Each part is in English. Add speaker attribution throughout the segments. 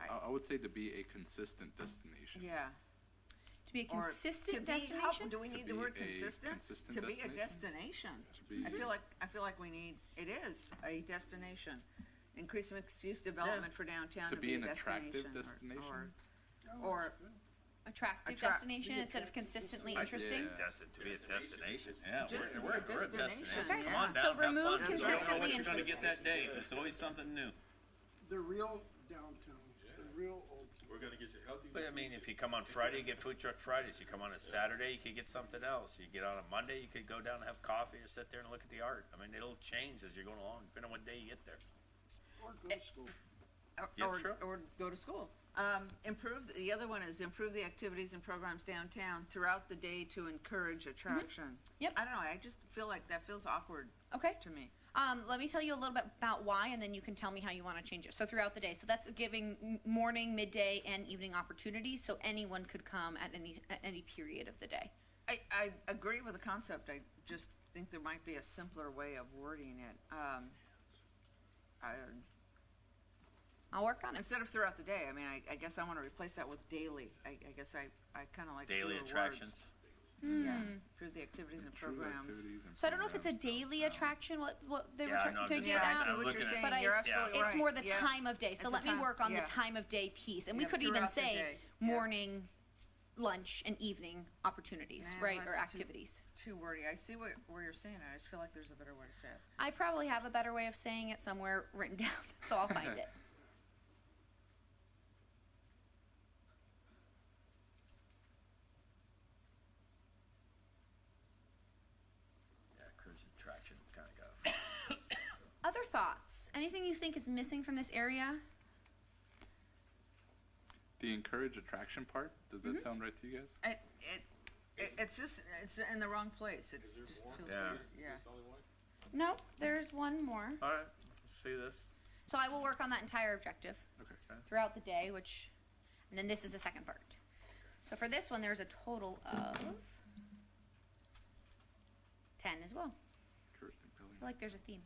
Speaker 1: I would say to be a consistent destination.
Speaker 2: Yeah.
Speaker 3: To be a
Speaker 2: Or
Speaker 3: consistent
Speaker 2: to be- how-
Speaker 3: destination?
Speaker 2: Do we
Speaker 1: To
Speaker 2: need the
Speaker 1: be
Speaker 2: word
Speaker 1: a
Speaker 2: consistent?
Speaker 1: consistent
Speaker 2: To be a
Speaker 1: destination?
Speaker 2: destination.
Speaker 1: To be-
Speaker 2: I feel like, I feel like we need, it is a destination. Increase mixed-use development for downtown
Speaker 1: To
Speaker 2: to
Speaker 1: be an
Speaker 2: a
Speaker 1: attractive
Speaker 2: destination. or-
Speaker 1: destination?
Speaker 2: Or,
Speaker 3: Attractive
Speaker 2: Attract-
Speaker 3: destination instead of consistently interesting?
Speaker 1: Yeah.
Speaker 4: Destin, to be a destination,
Speaker 2: or just
Speaker 4: yeah.
Speaker 2: to
Speaker 4: we're-
Speaker 2: be a
Speaker 4: We're, we're a
Speaker 2: destination,
Speaker 4: destination. Come
Speaker 2: yeah.
Speaker 4: on down.
Speaker 3: So
Speaker 4: have fun.
Speaker 3: remove
Speaker 4: You don't know
Speaker 3: consistently
Speaker 4: what you're gonna
Speaker 3: interesting.
Speaker 4: get that day. There's always something new.
Speaker 5: The real downtown, the real old town.
Speaker 6: We're gonna get you healthy.
Speaker 4: But I mean, if you come on Friday, you get food truck Fridays. You come on a Saturday, you could get something else. You get on a Monday, you could go down and have coffee or sit there and look at the art. I mean, it'll change as you're going along, depending on what day you get there.
Speaker 5: or go to school.
Speaker 2: or-
Speaker 4: Yeah,
Speaker 2: or,
Speaker 4: sure.
Speaker 2: or go to school. Um, improve, the other one is improve the activities and programs downtown throughout the day to encourage attraction.
Speaker 3: Yep.
Speaker 2: I don't know, I just feel like that feels awkward
Speaker 3: Okay.
Speaker 2: to me.
Speaker 3: Um, let me tell you a little bit about why, and then you can tell me how you want to change it. So throughout the day, so that's giving m- morning, midday, and evening opportunities, so anyone could come at any at any period of the day.
Speaker 2: I, I agree with the concept. I just think there might be a simpler way of wording it. Um, I,
Speaker 3: I'll work on it.
Speaker 2: instead of throughout the day, I mean, I, I guess I want to replace that with daily. I, I guess I, I kind of like
Speaker 4: Daily
Speaker 2: fewer
Speaker 4: attractions.
Speaker 2: Words. Yeah,
Speaker 3: Hmm.
Speaker 2: through the activities and
Speaker 1: True
Speaker 2: programs.
Speaker 1: activities and
Speaker 3: So I don't know if it's a
Speaker 1: programs. Um,
Speaker 3: daily attraction. What what they were
Speaker 4: Yeah,
Speaker 3: trying
Speaker 4: no, I'm
Speaker 3: to
Speaker 4: just-
Speaker 3: get
Speaker 2: Yeah, I
Speaker 3: at.
Speaker 2: see
Speaker 4: I'm
Speaker 2: what you're
Speaker 4: looking at-
Speaker 2: saying.
Speaker 3: but I-
Speaker 2: You're
Speaker 4: Yeah.
Speaker 2: absolutely right.
Speaker 3: It's more the
Speaker 2: Yeah.
Speaker 3: time of day. So
Speaker 2: It's
Speaker 3: let
Speaker 2: the
Speaker 3: me
Speaker 2: time-
Speaker 3: work on
Speaker 2: yeah.
Speaker 3: the time of day piece, and we
Speaker 2: Yeah,
Speaker 3: could even
Speaker 2: throughout the
Speaker 3: say
Speaker 2: day. Yeah.
Speaker 3: morning, lunch, and evening opportunities,
Speaker 2: Yeah,
Speaker 3: right, or
Speaker 2: that's too-
Speaker 3: activities.
Speaker 2: Too wordy. I see what, where you're saying. I just feel like there's a better way to say it.
Speaker 3: I probably have a better way of saying it somewhere written down, so I'll find it.
Speaker 4: Yeah, cruise attraction kinda got.
Speaker 3: Other thoughts? Anything you think is missing from this area?
Speaker 1: The encourage attraction part, does
Speaker 2: Mm-hmm.
Speaker 1: that sound right to you guys?
Speaker 2: It, it, it it's just it's in the wrong place. It just feels
Speaker 4: Yeah.
Speaker 2: weird. Yeah.
Speaker 3: No, there's one more.
Speaker 4: All right, see this?
Speaker 3: So I will work on that entire objective
Speaker 1: Okay.
Speaker 3: throughout the day, which, and then this is the second part. So for this one, there's a total of 10 as well.
Speaker 1: Encourage, compelling.
Speaker 3: I feel like there's a theme.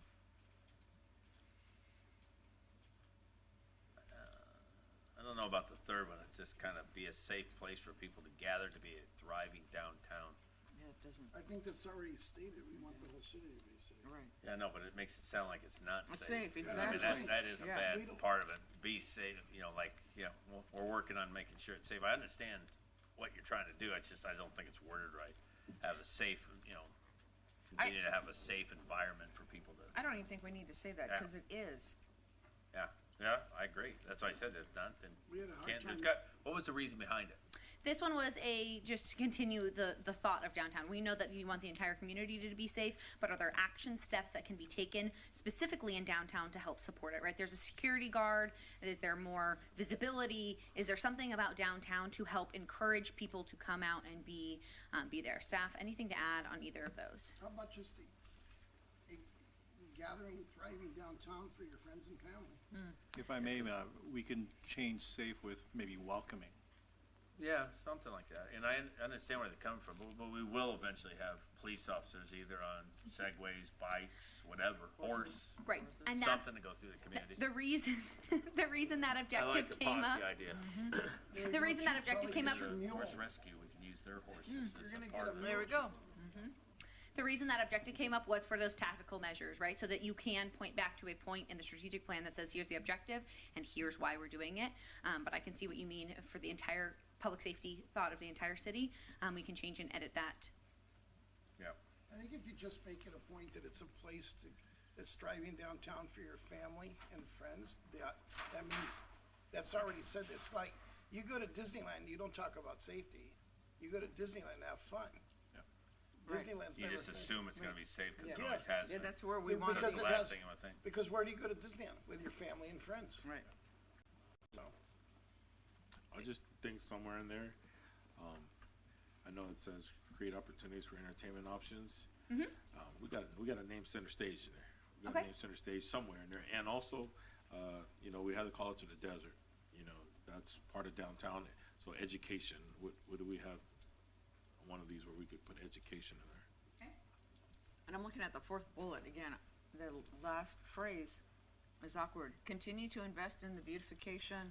Speaker 4: I don't know about the third one. It's just kind of be a safe place for people to gather to be a thriving downtown.
Speaker 2: Yeah, it doesn't.
Speaker 5: I think that's already stated, we want the whole city to be safe.
Speaker 2: Right.
Speaker 4: Yeah, no, but it makes it sound like it's not
Speaker 2: It's safe,
Speaker 4: safe. You know, I mean,
Speaker 2: exactly.
Speaker 4: That, that is a
Speaker 2: Yeah.
Speaker 4: bad
Speaker 5: We don't-
Speaker 4: part of it. Be safe, you know, like, you know, we're- we're working on making sure it's safe. I understand what you're trying to do. It's just, I don't think it's worded right. Have a safe, you know,
Speaker 2: I-
Speaker 4: continue to have a safe environment for people to,
Speaker 2: I don't even think we need to say that
Speaker 4: Yeah.
Speaker 2: because it is.
Speaker 4: yeah, yeah, I agree. That's why I said it's not, and
Speaker 5: We had a hard
Speaker 4: can't, there's
Speaker 5: time-
Speaker 4: got, what was the reason behind it?
Speaker 3: This one was a just to continue the the thought of downtown. We know that you want the entire community to be safe, but are there action steps that can be taken specifically in downtown to help support it? Right? There's a security guard. Is there more visibility? Is there something about downtown to help encourage people to come out and be um, be there? Staff, anything to add on either of those?
Speaker 5: How about just a, a gathering, thriving downtown for your friends and family?
Speaker 7: If I may, uh, we can change safe with maybe welcoming.
Speaker 4: Yeah, something like that. And I un- understand where they're coming from, but, but we will eventually have police officers either on segways, bikes, whatever, horse,
Speaker 3: Right, and that's
Speaker 4: something to go through the community.
Speaker 3: the reason the reason that
Speaker 4: I like
Speaker 3: objective
Speaker 4: the
Speaker 3: came up. Mm-hmm.
Speaker 4: posse idea.
Speaker 5: There
Speaker 3: The
Speaker 5: you go,
Speaker 3: reason that
Speaker 5: Chief
Speaker 3: objective
Speaker 5: Tully,
Speaker 3: came
Speaker 5: get
Speaker 3: up-
Speaker 5: your
Speaker 4: Sure,
Speaker 5: mule.
Speaker 4: Horse rescue, we can use their horses as
Speaker 5: Hmm, You're gonna
Speaker 4: a
Speaker 5: get
Speaker 4: part
Speaker 5: a
Speaker 4: of it.
Speaker 5: mule.
Speaker 3: The reason that objective came up was for those tactical measures, right? So that you can point back to a point in the strategic plan that says, here's the objective and here's why we're doing it. Um, but I can see what you mean for the entire public safety thought of the entire city. Um, we can change and edit that.
Speaker 4: Yeah.
Speaker 5: I think if you just make it a point that it's a place to, that's thriving downtown for your family and friends, that, that means, that's already said, it's like, you go to Disneyland, you don't talk about safety. You go to Disneyland, to have fun.
Speaker 2: Right.
Speaker 5: Disneyland's
Speaker 4: You
Speaker 5: never
Speaker 4: just
Speaker 5: safe.
Speaker 4: assume it's gonna be safe because it
Speaker 5: Yeah.
Speaker 4: always has
Speaker 2: Yeah,
Speaker 4: been.
Speaker 2: that's where we want to
Speaker 5: Because
Speaker 2: be.
Speaker 4: That's
Speaker 5: it
Speaker 4: the last
Speaker 5: has-
Speaker 4: thing I would think.
Speaker 5: Because where do you go to Disneyland? With your family and friends,
Speaker 2: Right.
Speaker 5: so.
Speaker 6: I just think somewhere in there, um, I know it says create opportunities for entertainment options. Um, we got, we got a name center stage in there. We got
Speaker 3: Okay.
Speaker 6: a name center stage somewhere in there. And also, uh, you know, we had to call it to the desert, you know, that's part of downtown. So education, what, what do we have? One of these where we could put education in there.
Speaker 2: And I'm looking at the fourth bullet again. The last phrase is awkward. Continue to invest in the beautification